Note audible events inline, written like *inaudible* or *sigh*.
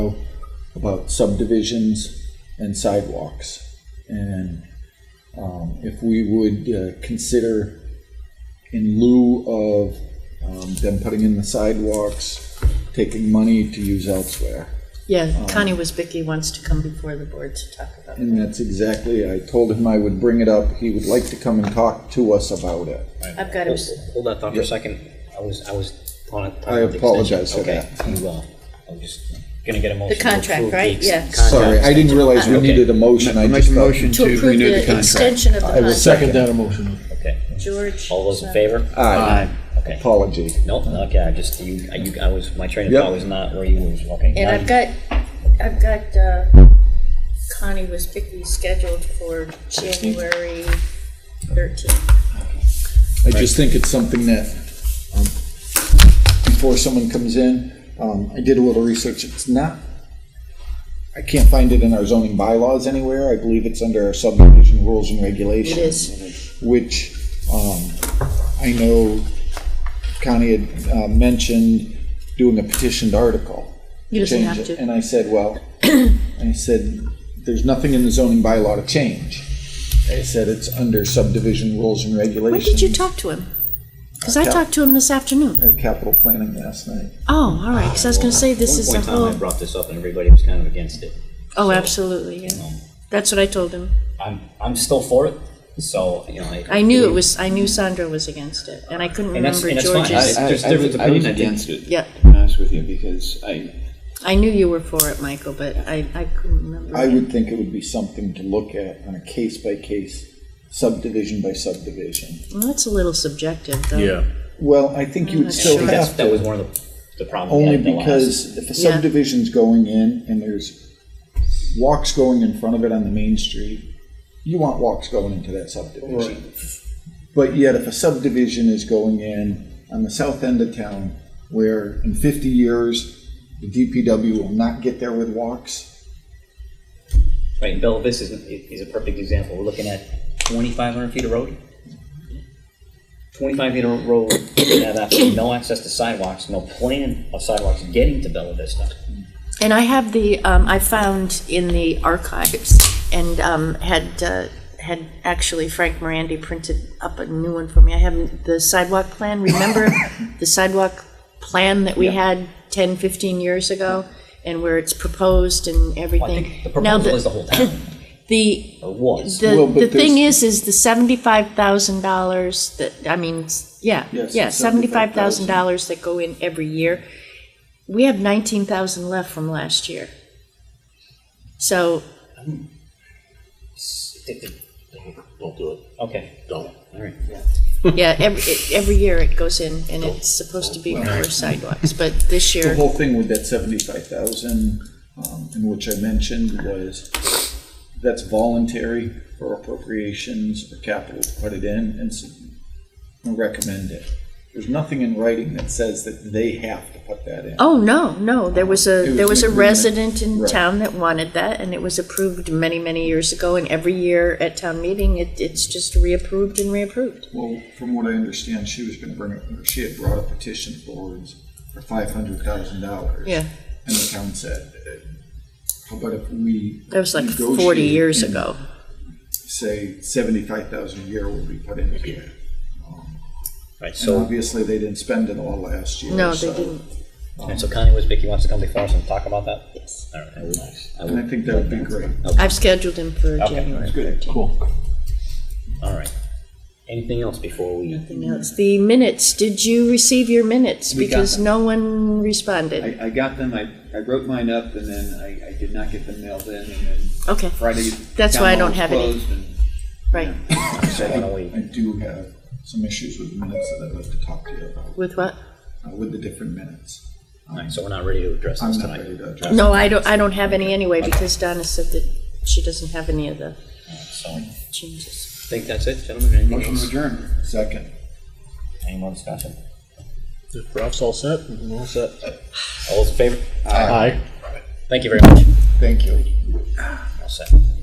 about subdivisions and sidewalks. And um, if we would uh, consider, in lieu of um, them putting in the sidewalks, taking money to use elsewhere. Yeah, Connie Wasbicki wants to come before the board to talk about it. And that's exactly, I told him I would bring it up. He would like to come and talk to us about it. Ah, I've got him, Hold hold that thought for a second. I was, I was on it. I apologize for Okay, you, uh, I'm just gonna get a motion. to contract, approve the right? ex- Yeah. contract. Sorry, I didn't realize we needed a motion. I I make just a thought- motion to to approve renew the the contract. extension of the I will contract. second that. motion. Okay, George. um, all those in favor? Aye. Aye. Okay. Apology. No, okay, I just, you, I- you, I was, my train of Yep. thought was not where you was, okay. And now I've you- got, I've got uh, Connie Wasbicki scheduled for January 13th. I just think it's something that, um, before someone comes in, um, I did a little research. It's not, I can't find it in our zoning bylaws anywhere. I believe it's under our subdivision rules and regulations. is. Which, um, I know Connie had, uh, mentioned doing a petitioned article. He doesn't change have it. to. And I said, well, *clears throat* I said, there's nothing in the zoning bylaw to change. I said, it's under subdivision rules and When regulations. did you talk to him? Because I talked to him this afternoon. at capital planning last night. Oh, all right, because I was going to say this One is point a in time, I whole, brought this up and everybody was kind of against it. oh, absolutely, yeah. Um, That's what I told him. I'm, I'm still for it, so, you know. I knew it was, I knew Sandra was against it, and I couldn't And that's- remember and that's fine. George's. I- there's I- I different was- I opinions, was I think. against it, Yeah, to be honest with you, because I, I knew you were for it, Michael, but I, I couldn't remember. I would think it would be something to look at on a case by case, subdivision by subdivision. Well, that's a little subjective, though. Yeah. Well, I think not you'd I still think that's, have that was to, one of the, the problems. we only had at the last- because if a Yeah. subdivision's going in and there's walks going in front of it on the main street, you want walks going into that subdivision. But yet if a subdivision is going in on the south end of town where in fifty years, the DPW will not get there with walks, Right, and Bella Vista is, is a perfect example. We're looking at twenty-five hundred feet of road. Twenty-five feet of road, we have absolutely no access to sidewalks, no plan of sidewalks getting to Bella Vista. And I have the, um, I found in the archives and, um, had, uh, had actually Frank Morandi printed up a new one for me. I have the sidewalk plan. Remember the sidewalk plan that we had 10, 15 years ago? And where it's proposed and Well, I everything? think the Now, proposal is the whole town, *laughs* The, or was. Well, The, but the thing there's- is, is the seventy-five thousand dollars that, I mean, s- yeah, Yes, yeah, the seventy-five thousand $75,000. dollars that go in every year. We have nineteen thousand left from last year. So, Don't do it. Okay, Don't. all right. *laughs* yeah, every, it- every year it goes in and it's supposed to be for sidewalks, but this The year, whole thing with that seventy-five thousand, um, in which I mentioned was, that's voluntary for appropriations or capital to put it in, and so I recommend it. There's nothing in writing that says that they have to put that in. oh, no, no, there was It a, was there was an a agreement. resident in Right. town that wanted that and it was approved many, many years ago and every year at town meeting, it, it's just reapproved and reapproved. Well, from what I understand, she was gonna bring, it- she had brought a petition forwards for five hundred thousand dollars. Yeah. And the town said, eh, how about if we. That was like forty negotiate years and ago. Say seventy-five thousand a year will be put into it. Right, So so, obviously, they didn't spend it all last year. No, they so- um, didn't. and so Connie Wisbicki wants to come before us and talk about that? Yes. All right, I would, I And I would, think that would be great. I've scheduled him for Okay, January. Cool. all right. Anything else before we, Nothing else. The minutes, did you receive your minutes? We got Because them. no one responded. I, I got them, I, I wrote mine up, and then I, I did not get them mailed in, and then Okay, Friday. That's town why I hall don't was have any. closed, and- right. so why don't we, I do have some issues with minutes that I'd like to talk to you about, With what? uh, with the different minutes. Um, all right, so we're not ready to address I'm this not tonight. ready to address. No, I don't, I don't have any anyway because Donna said that she doesn't have any of the So, I changes. think that's it, gentlemen, anything Motion to else? adjourn. Second. Any more discussion? If Ralph's all set, we're all set. All those in favor? Aye. Thank you very much. Thank you. All set.